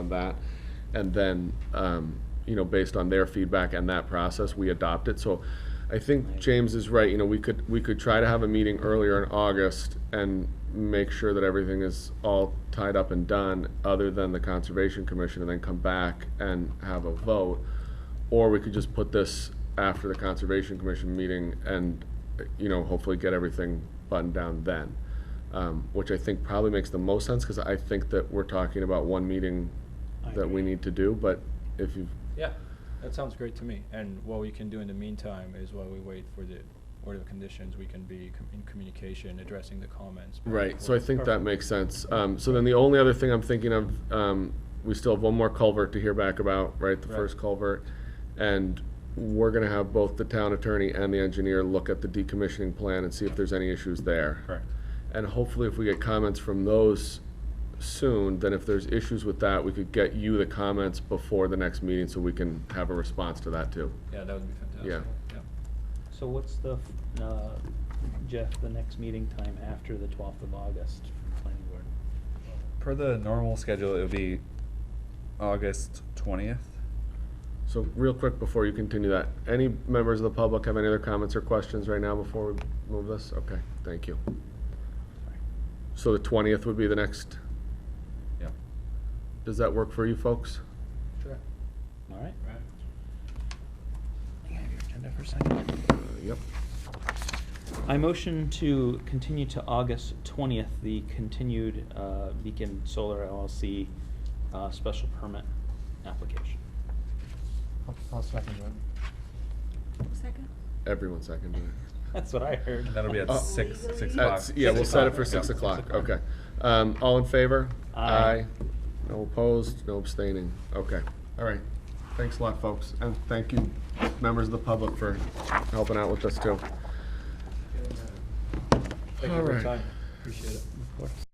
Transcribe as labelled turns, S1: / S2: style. S1: that. And then, um, you know, based on their feedback and that process, we adopt it. So I think James is right, you know, we could, we could try to have a meeting earlier in August and make sure that everything is all tied up and done, other than the Conservation Commission, and then come back and have a vote. Or we could just put this after the Conservation Commission meeting and, you know, hopefully get everything buttoned down then. Um, which I think probably makes the most sense, because I think that we're talking about one meeting
S2: I
S1: that we
S2: agree.
S1: need to do, but if you,
S2: Yeah, that sounds great to me. And what we can do in the meantime is while we wait for the order of conditions, we can be com- in communication, addressing the comments. back and
S1: right, so I
S2: forth.
S1: think that
S2: Perfect.
S1: makes sense. Um, so then the only other thing I'm thinking of, um, we still have one more culvert to hear back about, right, the
S2: Right.
S1: first culvert. And we're gonna have both the town attorney and the engineer look at the decommissioning plan and see if there's any issues there.
S2: Correct.
S1: And hopefully if we get comments from those soon, then if there's issues with that, we could get you the comments before the next meeting so we can have a response to that too.
S2: Yeah, that would be fantastic.
S1: Yeah.
S3: So what's the, uh, Jeff, the next meeting time after the twelfth of August, for planning board?
S4: Per the normal schedule, it would be August twentieth.
S1: So real quick before you continue that, any members of the public have any other comments or questions right now before we move this? Okay, thank you. So the twentieth would be the next,
S4: Yeah.
S1: does that work for you folks?
S2: Sure.
S3: All right,
S2: Right.
S1: Uh, Yep.
S3: I motion to continue to August twentieth, the continued, uh, Beacon Solar LLC, uh, special permit application.
S5: I'll- I'll second that.
S6: Second?
S1: Everyone seconded it.
S3: That's what I heard.
S4: And that'll be at
S1: Oh.
S4: six six
S6: Legally?
S4: o'clock.
S1: That's- Yeah, we'll set it for
S4: Yeah.
S1: six o'clock,
S3: o'clock.
S1: okay. Um, all in favor?
S3: Aye.
S1: No opposed, no abstaining, okay. All right, thanks a lot, folks, and thank you, members of the public, for helping out with this too.
S2: Thank you for your
S1: Alright.
S2: time. Appreciate it.